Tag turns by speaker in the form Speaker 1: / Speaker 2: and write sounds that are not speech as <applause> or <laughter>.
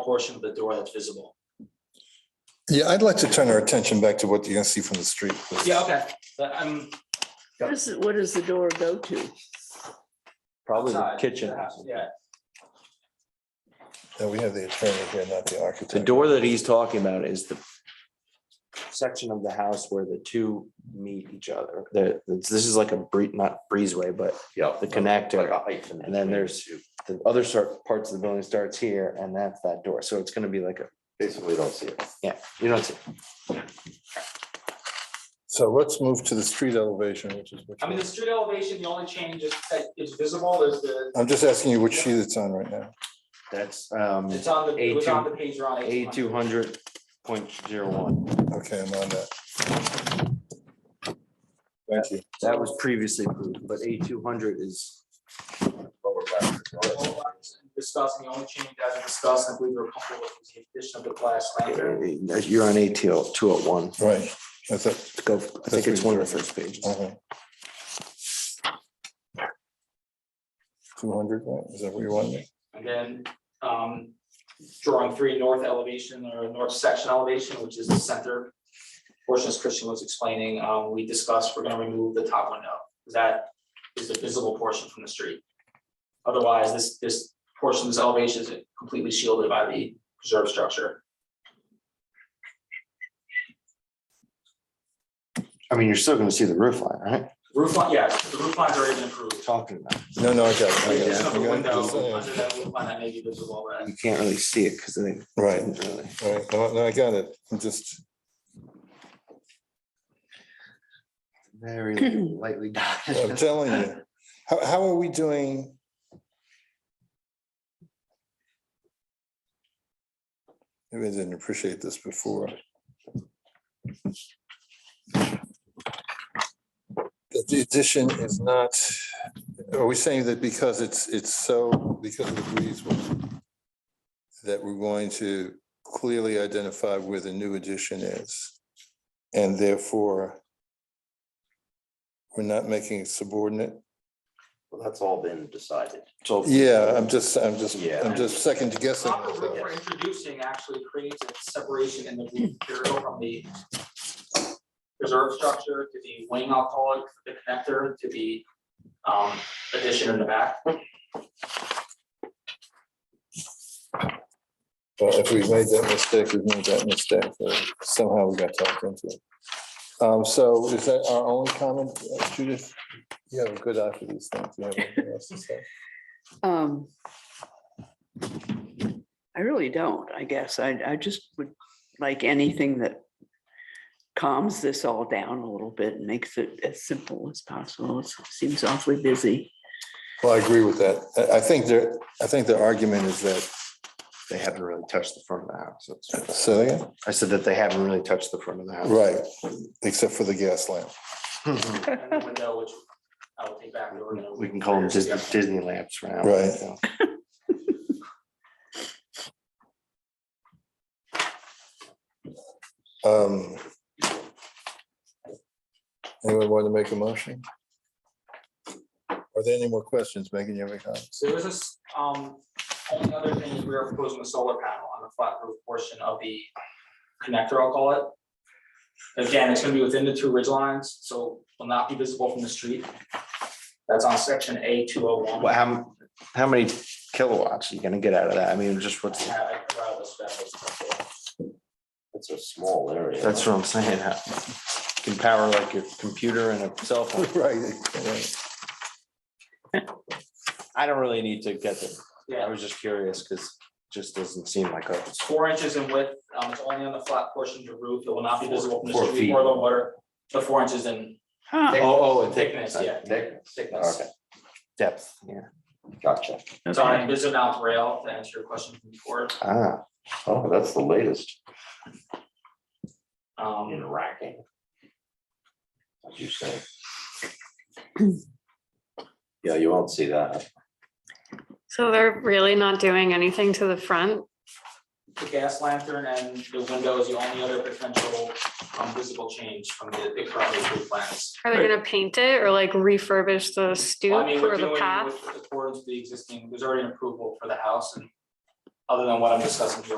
Speaker 1: portion of the door that's visible.
Speaker 2: Yeah, I'd like to turn our attention back to what you can see from the street. please.
Speaker 1: Yeah, okay, but I'm.
Speaker 3: What is, it- what does the door go to?
Speaker 4: Probably the
Speaker 1: outside
Speaker 4: kitchen.
Speaker 1: the house, Yeah,
Speaker 2: Yeah, we have the attorney here, not the architect.
Speaker 4: The door that he's talking about is the section of the house where the two meet each other. The, this is like a bree, not breezeway, but
Speaker 5: Yeah.
Speaker 4: the connector.
Speaker 5: And
Speaker 4: And then there's the other sort, parts of the building starts here and that's that door. So it's gonna be like a,
Speaker 5: Basically, don't see it.
Speaker 4: yeah, you know, it's
Speaker 2: So let's move to the street elevation, which is what.
Speaker 1: I mean, the street elevation, the only change is that is visible is the,
Speaker 2: I'm just asking you which sheet it's on right now.
Speaker 4: that's um
Speaker 1: it's on the, it was on the page around.
Speaker 4: A two hundred point zero one.
Speaker 2: Okay, I'm on that. Thank you.
Speaker 4: That was previously approved, but A two hundred is
Speaker 5: Lower left.
Speaker 1: Discussing, the only change as discussed, I believe we're comfortable with is the addition of the glass lantern.
Speaker 4: you're on ATL two oh one.
Speaker 2: Right, that's it.
Speaker 4: Go, I think it's one of the first pages.
Speaker 2: Two hundred, is that what you wanted?
Speaker 1: And then, um, drawing three north elevation or north section elevation, which is the center. Portion as Christian was explaining, um, we discussed, we're gonna remove the top window, because that is the visible portion from the street. Otherwise, this, this portion of this elevation is completely shielded by the preserve structure.
Speaker 4: I mean, you're still gonna see the roof line, right?
Speaker 1: Roof line, yes, the roof line's already been improved.
Speaker 4: Talking about,
Speaker 2: No, no, I got
Speaker 4: Oh,
Speaker 2: it. I got it.
Speaker 1: There's
Speaker 2: I
Speaker 1: another
Speaker 2: got
Speaker 1: window
Speaker 2: it. Just
Speaker 1: under
Speaker 2: saying.
Speaker 1: that roof line that may be visible, but
Speaker 4: you can't really see it because they
Speaker 2: Right,
Speaker 4: didn't really.
Speaker 2: right. No, no, I got it. I'm just,
Speaker 4: <clears throat> Very lightly. <laughs>
Speaker 2: I'm
Speaker 4: dotted.
Speaker 2: telling you. How, how are we doing? Maybe I didn't appreciate this before. That The addition is not, are we saying that because it's, it's so, because of the breezeway, that we're going to clearly identify where the new addition is? And therefore, we're not making it subordinate?
Speaker 5: Well, that's all been decided.
Speaker 4: So
Speaker 2: Yeah, um, I'm just, I'm just,
Speaker 5: Yeah.
Speaker 2: I'm just second guessing.
Speaker 1: Proper roof we're introducing actually creates a separation in the roof material from the preserve structure to the wing, I'll call it, the connector to the um addition in the back.
Speaker 2: But if we made that mistake, we made that mistake, uh, somehow we got talked into it. Um, so is that our only comment, uh, Judith? You have a good eye for these things. You have anything else to say?
Speaker 3: Um. I really don't, I guess. I, I just would like anything that calms this all down a little bit and makes it as simple as possible. It seems awfully busy.
Speaker 2: Well, I agree with that. I, I think their, I think their argument is that,
Speaker 4: They haven't really touched the front of the house. That's-
Speaker 2: Celia,
Speaker 4: I said that they haven't really touched the front of the house.
Speaker 2: right, except for the gas lamp.
Speaker 4: Right.
Speaker 1: And the window, which I will take back. we're gonna-
Speaker 4: <laughs> We can call them Disney, Disney lamps for now.
Speaker 2: Right.
Speaker 4: So,
Speaker 2: Um. Anyone want to make a motion? Are there any more questions, Megan, you have any comments?
Speaker 1: So there's this, um, only other thing is we are proposing a solar panel on the flat roof portion of the connector, I'll call it. Again, it's gonna be within the two ridge lines, so will not be visible from the street. That's on section A two oh one.
Speaker 4: Well, how, how many kilowatts are you gonna get out of that? I mean, just what's, the-
Speaker 5: It's a small area.
Speaker 4: that's what I'm saying. <laughs> How- Can power like your computer and a cell phone.
Speaker 2: Right, right.
Speaker 4: I don't really need to get them. I
Speaker 1: Yeah,
Speaker 4: was just curious because it just doesn't seem like a.
Speaker 1: it's four inches in width, um, it's only on the flat portion of the roof, it will not be visible from
Speaker 4: Four
Speaker 1: the street
Speaker 4: feet.
Speaker 1: or the water. The four inches in
Speaker 3: Huh,
Speaker 4: Oh, oh,
Speaker 1: thickness, yeah,
Speaker 5: Thickness.
Speaker 1: thickness.
Speaker 4: Okay. Depth, yeah.
Speaker 5: Gotcha.
Speaker 1: It's on an
Speaker 3: okay.
Speaker 1: invisible mount rail, to answer your question from before,
Speaker 4: Ah,
Speaker 5: Oh, that's the latest in
Speaker 1: um,
Speaker 5: racking. As you say. Yeah, you won't see that.
Speaker 6: So they're really not doing anything to the front?
Speaker 1: the gas lantern and the window is the only other potential um, visible change from the, the current approved plans.
Speaker 6: Are they gonna paint it or like refurbish the stoop
Speaker 1: Well, I mean,
Speaker 6: or
Speaker 1: we're
Speaker 6: the
Speaker 1: doing
Speaker 6: path?
Speaker 1: with accordance to the existing, there's already an approval for the house and other than what I'm discussing here